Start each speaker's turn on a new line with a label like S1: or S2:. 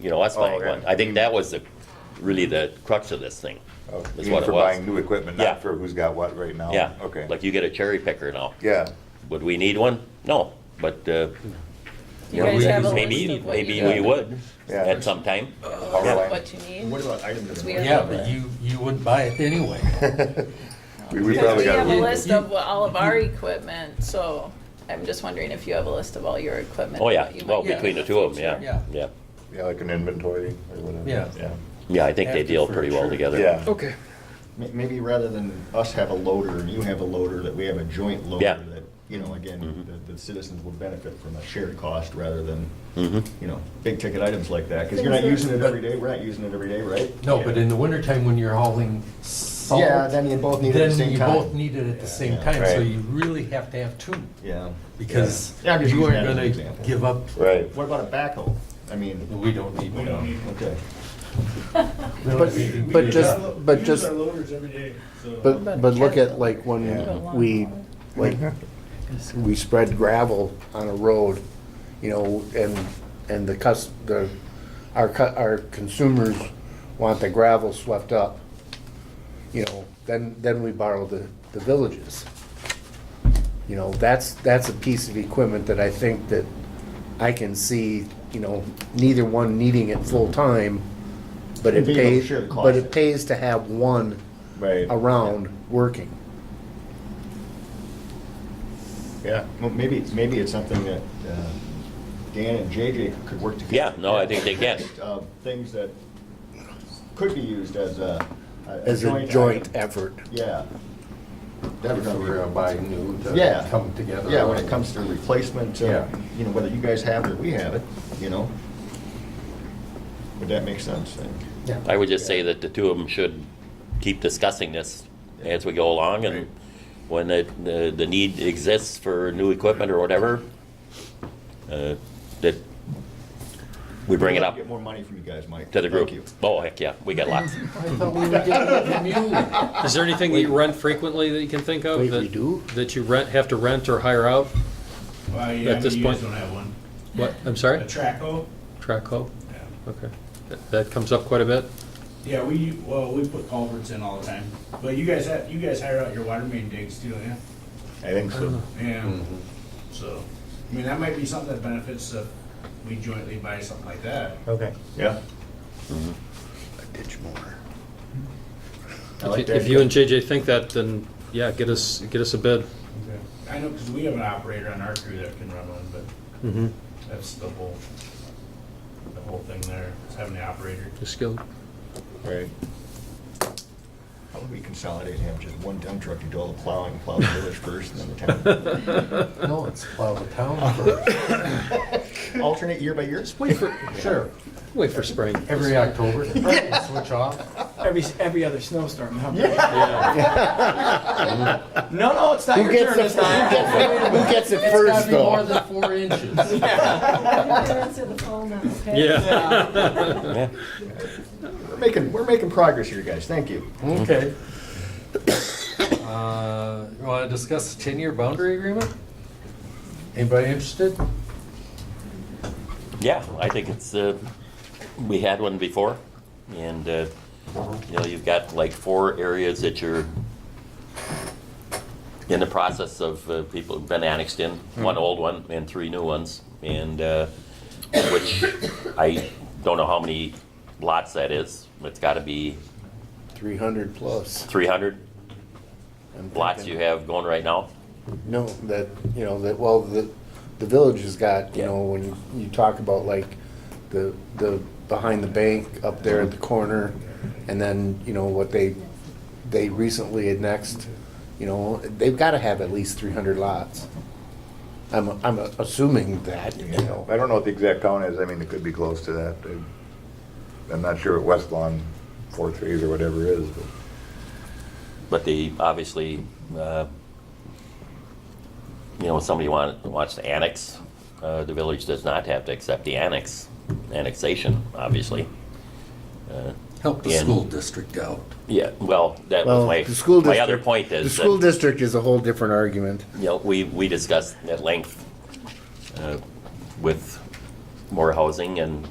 S1: you know, us
S2: Oh,
S1: buying
S2: okay.
S1: one. I think that was the, really the crux of this thing.
S2: Oh,
S1: is
S2: you mean
S1: what it
S2: For
S1: was.
S2: buying new equipment,
S1: Yeah.
S2: not for who's got what right now?
S1: Yeah.
S2: Oh, Okay.
S1: Like you get a cherry picker now.
S2: Yeah,
S1: Would we need one? No, but, uh,
S3: You guys have a list
S1: maybe,
S3: of what
S1: maybe
S3: you
S1: we
S3: got,
S1: would
S2: Yeah.
S1: at some time.
S2: power line.
S3: Uh, what you need.
S4: What about items?
S3: We
S4: that-
S3: are-
S5: Yeah, but you, you wouldn't buy it anyway.
S2: We- We
S3: Because
S2: probably
S3: we
S2: got.
S3: have a
S5: You-
S3: list
S5: you-
S3: of what- all of our equipment, so I'm just wondering if you have a list of all your equipment.
S1: Oh,
S3: and
S1: yeah,
S3: what you
S1: well,
S3: would need
S1: between the
S3: in
S1: two of them,
S3: future.
S1: yeah,
S5: Yeah.
S1: yeah.
S2: Yeah, like an inventory or whatever.
S5: Yeah.
S1: Yeah, I think they
S5: Active
S1: deal pretty well
S5: furniture.
S1: together.
S2: Yeah.
S4: Okay.
S6: May- Maybe rather than us have a loader and you have a loader, that we have a joint
S1: Yeah.
S6: loader that, you know, again, the- the citizens will benefit from a shared cost rather than,
S1: Mm-hmm.
S6: you know, big ticket items like that. Because you're not using it every day, we're not using it every day, right?
S5: No, but in the wintertime when you're hauling salt.
S6: Yeah, then you both need it at the
S5: then
S6: same
S5: you
S6: time.
S5: both need it at the same
S6: Yeah.
S5: time, so
S2: Right.
S5: you really have to have two.
S6: Yeah.
S5: Because
S6: Yeah, I'm just
S5: you
S6: using
S5: aren't
S6: that as an
S5: gonna
S6: example.
S5: give up,
S2: Right.
S6: What about a backhoe? I mean,
S5: we don't need
S6: you
S5: one.
S6: know, okay.
S5: We don't
S7: But-
S5: need it.
S7: but
S5: We
S7: just-
S5: don't.
S7: but
S4: We
S7: just-
S4: use our loaders every day, so.
S7: But, but look at like
S2: Yeah.
S7: when we, like,
S6: Mm-hmm.
S7: we spread gravel on a road, you know, and, and the cus, the, our, cu- our consumers want the gravel swept up. You know, then, then we borrow the, the villages. You know, that's, that's a piece of equipment that I think that I can see, you know, neither one needing it full-time, but it
S6: Being able to
S7: pays,
S6: share the cost.
S7: but it pays to have one
S6: Right.
S7: around working.
S6: Yeah, well, maybe, maybe it's something that uh, Dan and JJ could work together.
S1: Yeah, no, I think they can.
S6: Uh, Things that could be used as a.
S7: As a joint effort.
S6: Yeah,
S8: That's what we're gonna buy new to
S6: Yeah.
S8: come together.
S6: yeah, when it comes to replacement, uh,
S8: Yeah.
S6: you know, whether you guys have it or we have it, you know. Would that make sense? I-
S1: I would just say that the two of them should keep discussing this as we go along, and when the, the, the need exists for new equipment or whatever, uh, that we bring it up
S6: Get more money from you guys, Mike.
S1: to the group.
S6: Thank you.
S1: Oh, heck, yeah, we got lots.
S5: I thought we were getting a mule.
S9: Is there anything that you rent frequently that you can think of?
S7: Wait,
S9: that-
S7: we do?
S9: That you rent, have to rent or hire out?
S4: Well, yeah, I
S9: At this
S4: mean, you
S9: point-
S4: guys don't have one.
S9: What, I'm
S4: A
S9: sorry?
S4: Traco?
S9: Track hoe?
S4: Yeah.
S9: Okay. That- That comes up quite a bit?
S4: Yeah, we, well, we put culverts in all the time, but you guys have, you guys hire out your water main digs too, yeah?
S6: I think
S9: Uh-huh.
S6: so.
S4: Yeah,
S9: Mm-hmm.
S4: so, I mean, that might be something that benefits if we jointly buy something like that.
S6: Okay. Yeah. Mm-hmm. I like
S9: If
S6: that.
S9: if you and JJ think that, then yeah, get us, get us a bid.
S4: I know, because we have an operator on our crew that can run one, but
S9: Mhm.
S4: that's the whole, the whole thing there, is having the operator.
S9: Just go.
S6: Right. How would we consolidate and have just one dump truck to do all the plowing, plow the village first, and then the
S5: No, it's plow the town for,
S6: town? Alternate year by year?
S5: wait for, sure,
S9: Wait for spring.
S5: every October, switch off.
S10: Every, every other snowstorm. huh? No, no, it's not
S7: Who
S10: your
S7: gets
S10: turn
S7: the-
S10: this time.
S7: Who gets it
S5: It's gotta
S7: first
S5: be more
S7: though?
S5: than four inches.
S9: Yeah.
S6: We're making, we're making progress here, guys. Thank you.
S5: Okay. Uh, You want to discuss the ten-year boundary agreement? Anybody interested?
S1: Yeah, I think it's, uh, we had one before, and, uh, you know, you've got like four areas that you're in the process of, uh, people have been annexed in, one old one and three new ones, and, uh, which I don't know how many lots that is, it's gotta be
S7: Three hundred plus.
S1: three hundred
S7: I'm
S1: lots you
S7: thinking.
S1: have going right now.
S7: No, that, you know, that, well, the, the village has got, you
S1: Yeah.
S7: know, when you talk about like the, the, behind the bank up there at the corner, and then, you know, what they, they recently annexed, you know, they've gotta have at least three hundred lots. I'm, I'm assuming that, you know.
S2: I don't know what the exact count is. I mean, it could be close to that. I- I'm not sure what West Lawn four threes or whatever is, but
S1: But they obviously, uh, you know, somebody want, wants to annex, uh, the village does not have to accept the annex, annexation, obviously. Uh,
S5: Help
S1: the school
S5: district out.
S1: Yeah, well, that was
S7: Well,
S1: my,
S7: the school
S1: my other
S7: district-
S1: point
S7: The
S1: is
S7: school
S1: that,
S7: district is a whole different argument.
S1: you know, we, we discussed at length uh, with more housing and